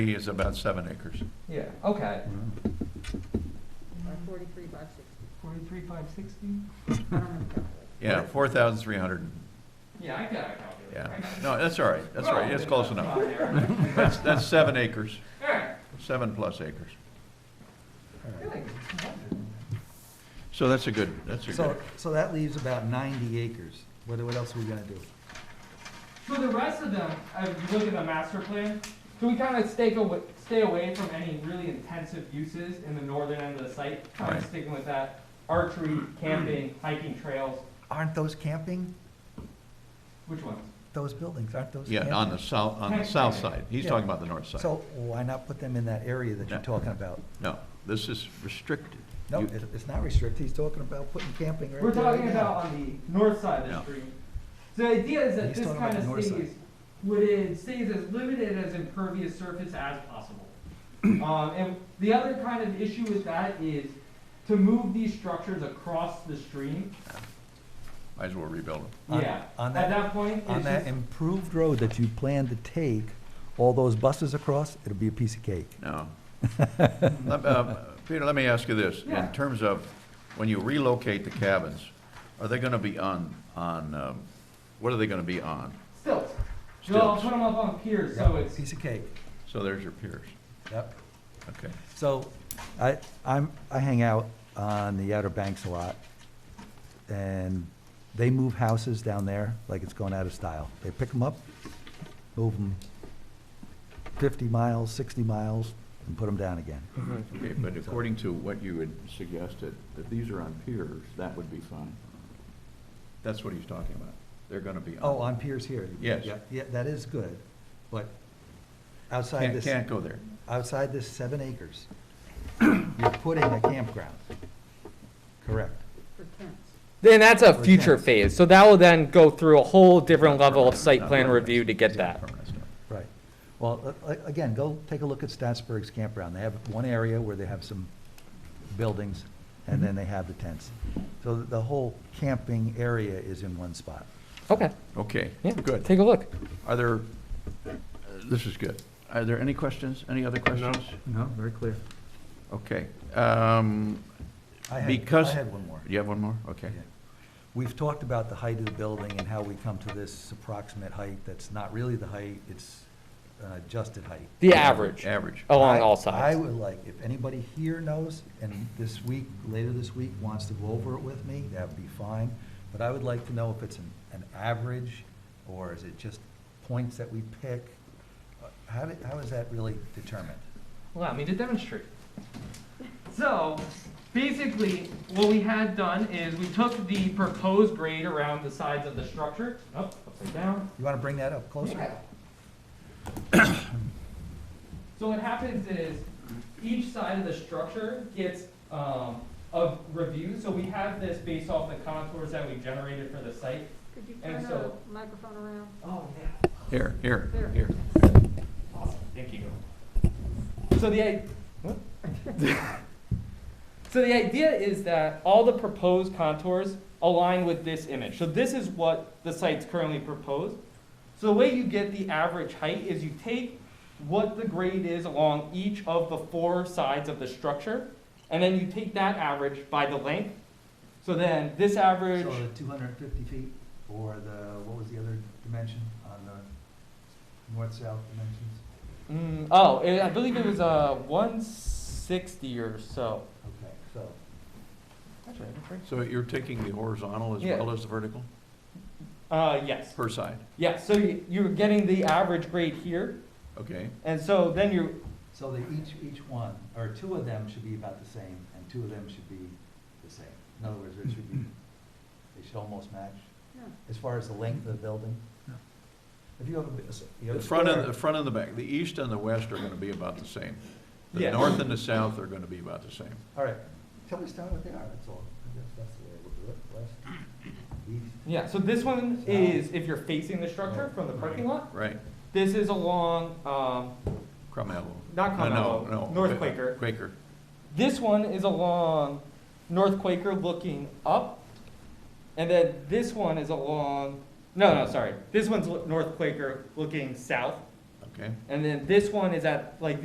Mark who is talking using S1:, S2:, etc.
S1: is about seven acres.
S2: Yeah, okay.
S3: Or forty-three by sixty,
S2: Forty-three, five sixty?
S3: I don't have a calculator.
S1: Yeah, four thousand three hundred,
S2: Yeah, I got a copy.
S1: yeah. No, that's all right, that's all right, it's close enough. That's, that's seven acres,
S2: Alright,
S1: seven plus acres.
S2: really?
S1: So that's a good, that's a
S4: So,
S1: good,
S4: so that leaves about ninety acres. What, what else we gotta do?
S2: So the rest of them, uh, if you look at the master plan, so we kind of stay away, stay away from any really intensive uses in the northern end of the site. Kind
S1: Right.
S2: of sticking with that archery, camping, hiking trails,
S4: Aren't those camping,
S2: which ones?
S4: those buildings, aren't those camping?
S1: yeah, on the south, on the south side. He's talking about the north side.
S4: So why not put them in that area that you're
S1: No.
S4: talking about?
S1: No, this is restricted.
S4: No,
S1: You-
S4: it- it's not restricted. He's talking about putting camping right
S2: We're
S4: there, right
S2: talking
S4: now.
S2: about on the north side of
S1: Yeah.
S2: the street. So the idea is that
S4: He's
S2: this
S4: talking about
S2: kind
S4: the
S2: of
S4: north
S2: stays,
S4: side.
S2: would it stays as limited as impervious surface as possible. Um, and the other kind of issue with that is to move these structures across the stream,
S1: Might as well rebuild them.
S4: On-
S2: yeah.
S4: on
S2: At
S4: that-
S2: that point,
S4: On
S2: it's
S4: that
S2: just,
S4: improved road that you plan to take all those buses across, it'll be a piece of cake.
S1: No. Let- um, Peter, let me ask you this. In
S2: Yeah.
S1: terms of, when you relocate the cabins, are they gonna be on, on, um, what are they gonna be on?
S2: stilts. They'll I'll
S1: Stilts.
S2: put them up on piers,
S4: Yeah,
S2: so it's,
S4: Piece of cake,
S1: So there's your piers.
S4: yep.
S1: Okay.
S4: So, I, I'm, I hang out on the Outer Banks a lot, and they move houses down there like it's going out of style. They pick them up, move them fifty miles, sixty miles, and put them down again.
S1: Okay, but according to what you had suggested, if these are on piers, that would be fine. That's what he's talking about. They're gonna be on.
S4: Oh, on piers here?
S1: Yes.
S4: Yeah, Yeah, that is good, but outside
S1: Can't,
S4: this,
S1: can't go there.
S4: outside this seven acres, you're putting a campground. Correct.
S3: for tents.
S5: Then that's a
S4: Or
S5: future
S4: tents.
S5: phase, so that will then go through a whole different level of
S1: Permanent,
S5: site
S1: not
S5: plan
S1: permanent.
S5: review to get
S1: It's not
S5: that.
S1: permanent stuff.
S4: Right. Well, a- a- again, go take a look at Statsburg's campground. They have one area where they have some buildings,
S1: Mm-hmm.
S4: and then they have the tents. So the- the whole camping area is in one spot.
S5: Okay,
S1: Okay,
S5: yeah,
S1: good.
S5: take a look.
S1: Are there, uh, this is good. Are there any questions? Any other questions?
S4: No, very clear.
S1: Okay. Um,
S4: I had, I
S1: Because-
S4: had one more.
S1: you have one more? Okay.
S4: Yeah. We've talked about the height of the building and how we come to this approximate height that's not really the height, it's an adjusted height.
S5: The average, Oh.
S1: Average.
S4: I-
S5: along all
S4: I
S5: sides.
S4: would like, if anybody here knows, and this week, later this week, wants to go over it with me, that would be fine. But I would like to know if it's an, an average, or is it just points that we pick? Uh, How, did- how is that really determined?
S2: allow me to demonstrate. So, basically, what we had done is we took the proposed grade around the sides of the structure, up, upside down,
S4: You want to bring that up closer?
S2: Yeah. So what happens is, each side of the structure gets, um, a review, so we have this based off the contours that we generated for the site.
S3: Could you turn
S2: And
S3: the
S2: so-
S3: microphone around?
S2: Oh, yeah.
S1: Here, here,
S3: There.
S1: here.
S2: Awesome, thank you. So the, i- so the idea is that all the proposed contours align with this image. So this is what the site's currently proposed. So the way you get the average height is you take what the grade is along each of the four sides of the structure, and then you take that average by the length. So then this average,
S4: So the two hundred and fifty feet, or the, what was the other dimension on the north-south
S2: mm,
S4: dimensions?
S2: oh, it- I believe it was uh, 160 or so.
S4: Okay, so,
S2: Actually, I didn't bring-
S1: So you're taking the horizontal as
S2: Yeah.
S1: well as the vertical
S2: Uh, yes.
S1: per side?
S2: Yeah, so you- you're getting the average grade here,
S1: Okay,
S2: and so then you're,
S4: so that each, each one, or two of them should be about the same, and two of them should be the same. In other words, it should be, they should almost match,
S3: No,
S4: as far as the length of the building. If you have a, bi- you have
S1: the
S4: a
S1: front and, the
S4: square-
S1: front and the back, the east and the west are gonna be about the same. The
S2: Yes.
S1: north and the south are gonna be about the same.
S4: All right, tell me, start what they are, that's all. I guess that's the way we'll do it, west, east.
S2: yeah, so this one is if you're facing the structure from the parking lot.
S1: Right,
S2: This is along, um,
S1: Crum Elbow.
S2: Not Crum
S1: No,
S2: Elbow,
S1: No, no.
S2: North Quaker.
S1: Quaker,
S2: this one is along North Quaker looking up. And then this one is along, no, no, sorry. This one's lo- North Quaker looking south.
S1: okay?
S2: And then this one is at, like,